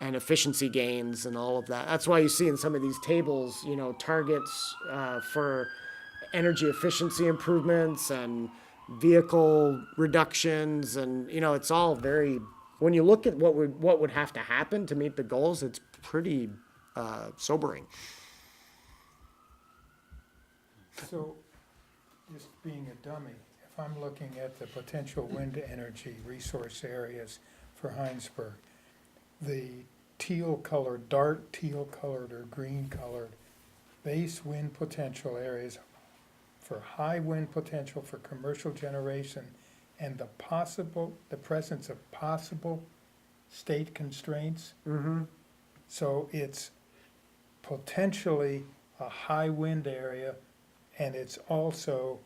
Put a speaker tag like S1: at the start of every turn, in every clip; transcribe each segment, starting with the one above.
S1: and efficiency gains and all of that. That's why you see in some of these tables, you know, targets uh, for energy efficiency improvements and vehicle reductions, and you know, it's all very. When you look at what would what would have to happen to meet the goals, it's pretty uh, sobering.
S2: So, just being a dummy, if I'm looking at the potential wind energy resource areas for Heinsberg, the teal colored, dark teal colored or green colored base wind potential areas for high wind potential for commercial generation and the possible, the presence of possible state constraints.
S1: Mm-hmm.
S2: So it's potentially a high wind area and it's also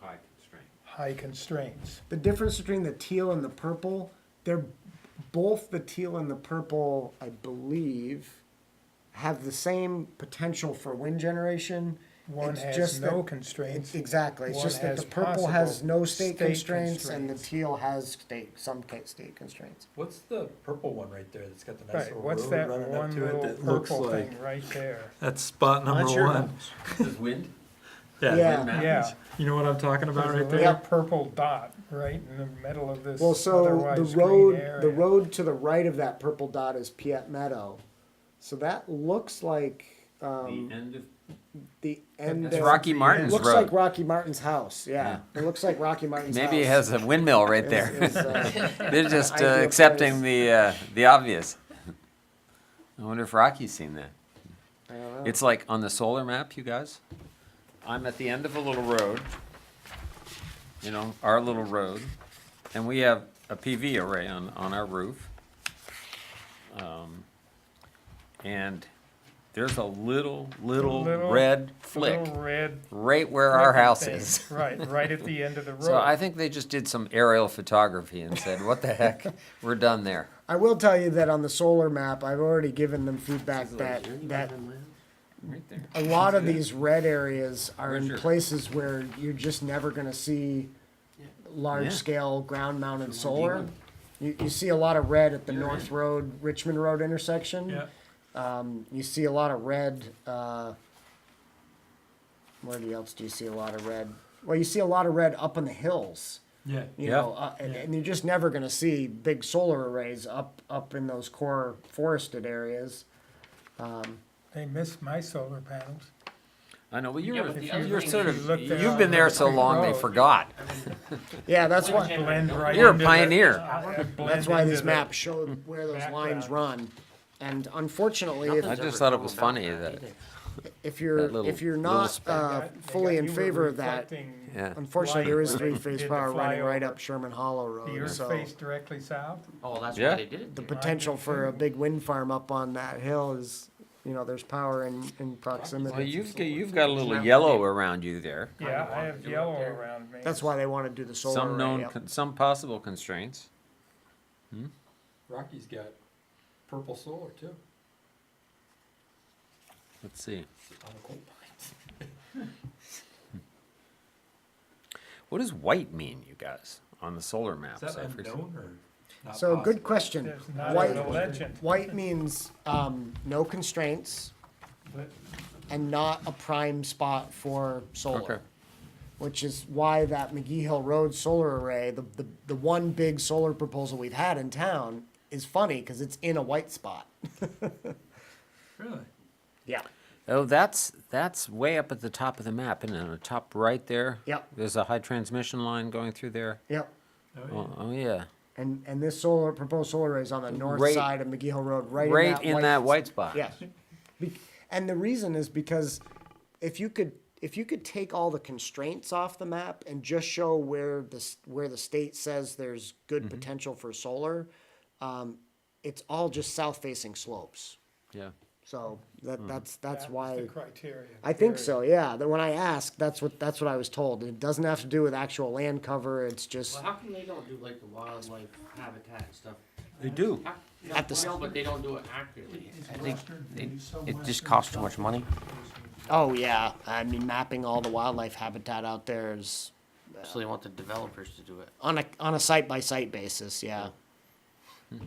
S3: high constraint.
S2: high constraints.
S1: The difference between the teal and the purple, they're both the teal and the purple, I believe, have the same potential for wind generation.
S2: One
S1: It's
S2: has
S1: just
S2: no
S1: that-
S2: constraints.
S1: Exactly. It's
S2: One
S1: just that
S2: has
S1: the purple has
S2: possible
S1: no state,
S2: state
S1: constraints, and the
S2: constraints.
S1: teal has state some ca- state constraints.
S4: What's the purple one right there that's got the
S2: Right,
S4: nice little
S2: what's
S4: road
S2: that
S4: running up
S2: one
S4: to it
S2: little
S4: that looks
S2: purple
S4: like?
S2: thing right there?
S4: That's spot number
S1: That's your
S4: one.
S3: This is wind?
S4: Yeah.
S1: Yeah.
S2: Yeah.
S4: You know what I'm talking about
S2: There's a
S4: right
S2: little
S4: there?
S2: purple dot right in the middle of this
S1: Well, so the
S2: otherwise green
S1: road, the
S2: area.
S1: road to the right of that purple dot is Piet Meadow, so that looks like um,
S3: The end of,
S1: the end.
S5: That's
S1: of,
S5: Rocky Martin's
S1: Looks
S5: road.
S1: like Rocky Martin's house. Yeah, it looks like Rocky Martin's.
S5: Maybe it
S1: house.
S5: has a windmill right there.
S1: Is- is, uh,
S5: They're just uh,
S1: Ideal
S5: accepting the uh, the obvious. I wonder if Rocky's seen that.
S1: I don't know.
S5: It's like on the solar map, you guys. I'm at the end of a little road. You know, our little road, and we have a PV array on on our roof. Um, and there's a little little,
S2: Little-
S5: red
S2: The
S5: flick
S2: little red.
S5: right where our
S2: flicker
S5: house
S2: thing.
S5: is.
S2: Right, right at the end of the road.
S5: So I think they just did some aerial photography and said, "What the heck? We're done there."
S1: I will tell you that on the solar map, I've already given them feedback that, that
S5: Right there.
S1: a lot of these red areas are in
S5: Sure.
S1: places where you're just never gonna see large
S5: Yeah.
S1: scale ground mounted solar. You, you see a lot of red at the North Road, Richmond Road intersection.
S4: Yeah.
S1: Um, you see a lot of red, uh, where do you- else do you see a lot of red? Well, you see a lot of red up in the hills.
S4: Yeah.
S1: you
S5: Yeah.
S1: know, uh, and,
S4: Yeah.
S1: and you're just never going to see big solar arrays up up in those core forested areas.
S2: They missed my solar panels.
S5: I know. Well, you're,
S3: Yeah, but the other
S5: you're
S3: thing
S5: sort
S2: is
S5: of
S2: you look there
S5: you've
S2: on
S5: been there
S2: the
S5: so
S2: creek
S5: long they
S2: road.
S5: forgot.
S1: Yeah, that's why
S2: Blend right
S5: You're a
S2: into the-
S5: pioneer.
S2: I- I blend
S1: that's why
S2: into
S1: these
S2: the-
S1: maps show where those lines
S2: background.
S1: run. And unfortunately,
S5: I
S1: if,
S5: just thought it was funny that
S1: if
S5: that
S1: you're
S5: little-
S1: if you're
S5: little
S1: not
S5: speck.
S1: uh,
S2: They got- they
S1: fully
S2: got-
S1: in
S2: you were
S1: favor of that,
S2: reflecting-
S5: yeah.
S1: unfortunately,
S2: Light
S1: there is
S2: when they
S1: three phase
S2: did the
S1: power running right
S2: flyover.
S1: up Sherman Hollow
S2: The
S1: Road.
S2: earth
S1: So
S2: faced directly south?
S3: oh, that's
S5: Yeah.
S3: why they did it.
S1: the
S3: there.
S1: potential for a big wind farm up on that hill is, you know, there's power in in
S5: Well,
S1: proximity.
S5: you've got, you've got a little yellow around you there.
S2: Yeah, I
S3: wanted to
S2: have
S3: do it
S2: yellow
S3: there.
S2: around me.
S1: That's why they want to do the solar
S5: Some
S1: array
S5: known,
S1: up
S5: con- some possible constraints.
S4: Rocky's got purple solar too
S5: Let's see.
S4: on the coal mines.
S5: What does white mean, you guys, on the solar maps?
S4: Is
S5: I
S4: that
S5: forget-
S4: unknown or not
S1: So good
S4: possible?
S1: question.
S2: There's not
S1: White,
S2: a legend.
S1: white means um, no constraints
S2: but-
S1: and not a prime spot for solar,
S5: Okay.
S1: which is why that McGee Hill Road solar array, the, the, the one big solar proposal we've had in town, is funny because it's in a white spot.
S4: Really?
S1: Yeah.
S5: Oh, that's that's way up at the top of the map, and on the top right there.
S1: Yep.
S5: There's a high transmission line going through there.
S1: Yep.
S4: Oh, yeah.
S5: Oh, oh yeah,
S1: And and this solar proposed solar array is on the north
S5: Right-
S1: side of McGee Hill Road, right,
S5: right,
S1: in that white
S5: spot.
S1: Yes. Be- and the reason is because if you could if you could take all the constraints off the map and just show where the s- where the state says there's good potential for solar, um, it's all just south facing slopes.
S5: Yeah.
S1: So that that's that's
S2: That's
S1: why
S2: the criteria.
S1: I think
S2: period.
S1: so. Yeah. That when I asked, that's what that's what I was told. It doesn't have to do with actual land cover. It's just
S3: Well, how come they don't do like the wildlife habitat and stuff?
S5: They do.
S3: How-
S1: At the s-
S3: No, but they don't do it accurately.
S6: I think it, it just costs too much money.
S1: oh yeah. I mean, mapping all the wildlife habitat out there is
S3: So they want the developers to do it.
S1: on a on a site by site basis. yeah.